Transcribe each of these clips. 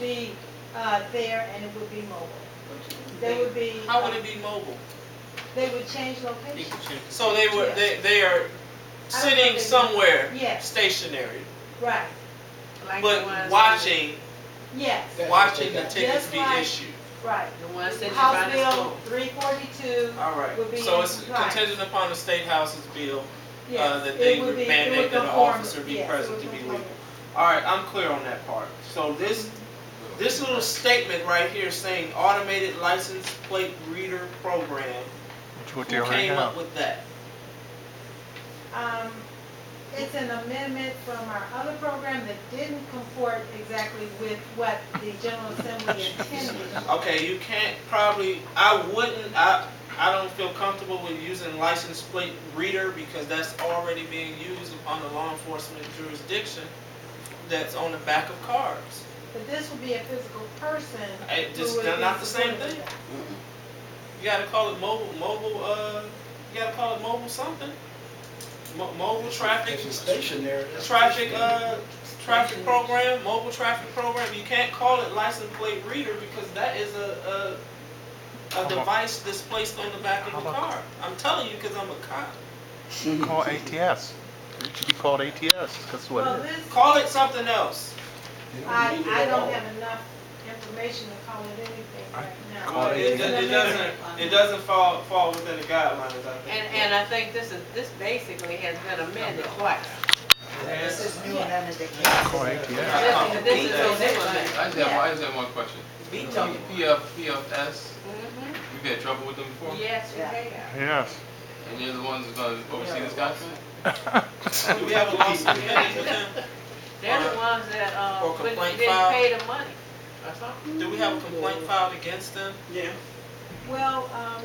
be uh, there and it would be mobile. They would be, uh, How would it be mobile? they would change location. So they were, they, they are sitting somewhere Yes, stationary, right, Like the but ones- watching, yes, watching the tickets be issued. right. The ones that you buy House the Bill school. three forty-two, All right, Would be so in it's compliance. contingent upon the state house's bill. uh, yes. that it they would would be- it mandate would that an conform- officer be yes, it present would to be conform. legal. All right, I'm clear on that part. So this, this little statement right here saying automated license plate reader program, That's what they who already came up have. with that? Um, it's an amendment from our other program that didn't comport exactly with what the General Assembly intended. Okay, you can't probably, I wouldn't, I, I don't feel comfortable with using license plate reader because that's already being used on the law enforcement jurisdiction that's on the back of cars. But this would be a physical person. It who just, would they're be not the same supported. thing. You gotta call it mobile, mobile, uh, you gotta call it mobile something. Mo- Mobile traffic, It's a stationary. it's traffic, stationary. uh, traffic program, mobile traffic program, you can't call it license plate reader because that is a, a, a about- device that's placed on the back of how the about- car. I'm telling you, cause I'm a cop. Call ATS. It should be called ATS, that's what Well, it is. this, Call it something else. You don't I, need it I at don't all. have enough information to call it anything right Call now. it- It, do- it doesn't, it doesn't fall, fall within the guidelines, I think. And, and I think this is, this basically has been amended twice. Yes. Call ATS. This, this is a new I just have, I just have one question. PF, PFS, amendment. you've had trouble with them before? Mm-hmm. Yes, we have. Yes. And you're the ones that's gonna oversee this document? Do we have a lawsuit pending with them? They're the ones that, uh, Or couldn't- complaint didn't filed. pay the money or something. Do we have a complaint filed against them? Yeah. Well, um,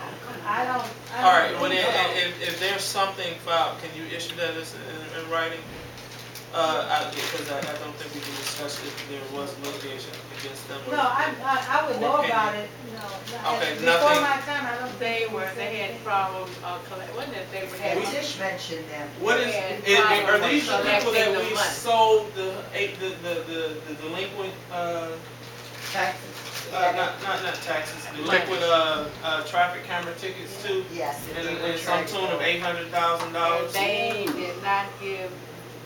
I don't, I don't. All right, when, think it- so. if, if there's something filed, can you issue that as, in, in writing? Uh, I, because I, I don't think we can discuss if there was litigation against them. or- No, I, I, I would know Okay. about it, no. no, Okay, Before nothing. my time, I don't. think They we were, said they had anything. problems, uh, collect, wasn't it, they Yeah, we had, just mentioned them. What is, Yeah, it- it- are these probably the people that collecting the we money. sold the, eight- the, the, the- the delinquent, uh, Taxes. uh, not, not, not taxes, delinquent, uh, uh, traffic camera tickets to, Yes. in, in some tune of eight hundred thousand dollars? they did not give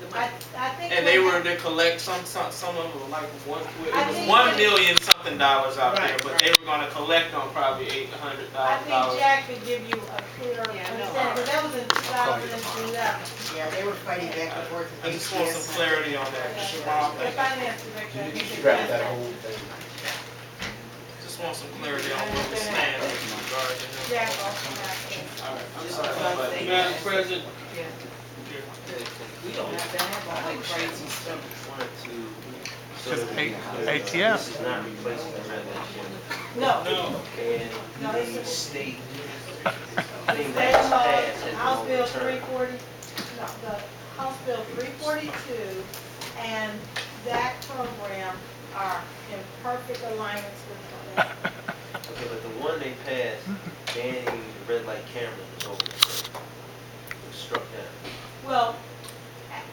the I, money. I think. And they when- were to collect some, some, some of them, like one, it I was think- one million something dollars out there, Right, but they were gonna collect on probably eight hundred I thousand think dollars. Jack could give you a clearer Yeah, I know. understanding, but that was in two thousand and eleven. Yeah, they were fighting back and forth I with just want some ATS. clarity on that, just one The thing. finance director. I You think, need to could scrap address that that. whole thing. just want some clarity on where we stand with regard to them. Jack also got it. All right, I'm Just sorry, one but- thing. Madam President, Yeah. here. We don't have to have all that crazy stuff. Just A- ATS. No, no, no, it's a State. The state law, House Bill three forty, no, the House Bill three forty-two and that program are in perfect alignment with one another. Okay, but the one they passed banning the red light camera was over. It was struck down. Well,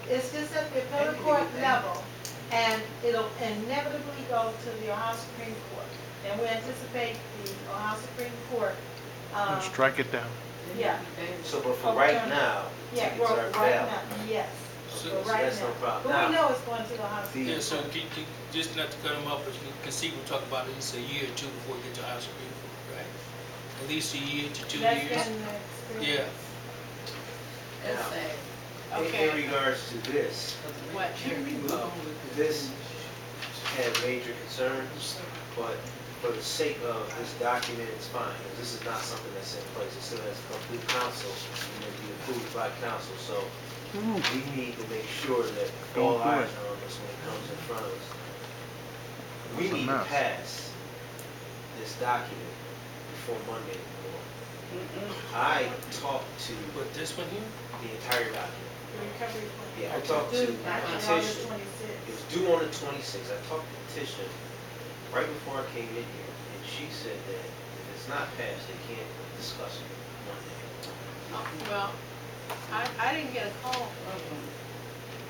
it's just at the appellate court level, and it'll inevitably go to the Ohio Supreme Court. And we anticipate the Ohio Supreme Court, um, Strike it down. yeah, So, but for right now, yeah, tickets well, are right valid. now, yes, So- for So right that's no now. problem. But we Now, know it's going to the Ohio Supreme. Yeah, the, so can- can- just not to cut them off, but you can see, we'll talk about it, it's a year or two before we get to Ohio Supreme Court, right? At least a year to two That's years. been the experience. Yeah. That's sad. in- Okay. in regards to this, What? uh, this had major concerns, but for the sake of this document, it's fine. 'cause This is not something that's in place. It still has to come through council and then be approved by council. So we need to make sure that all Don't do eyes it. are on this when it comes in front of us. It's We a need to mess. pass this document before Monday morning. I talked to But this one here? the entire document. Recovery plan. Yeah, I talked to Due the back in August petition. It was twenty-sixth. due on the twenty-sixth. I talked to Tisha right before I came in here, and she said that if it's not passed, they can't discuss it Monday. Oh, Well, I, I didn't get a call from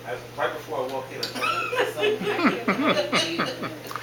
I, right before I walked in, I talked to Something like that.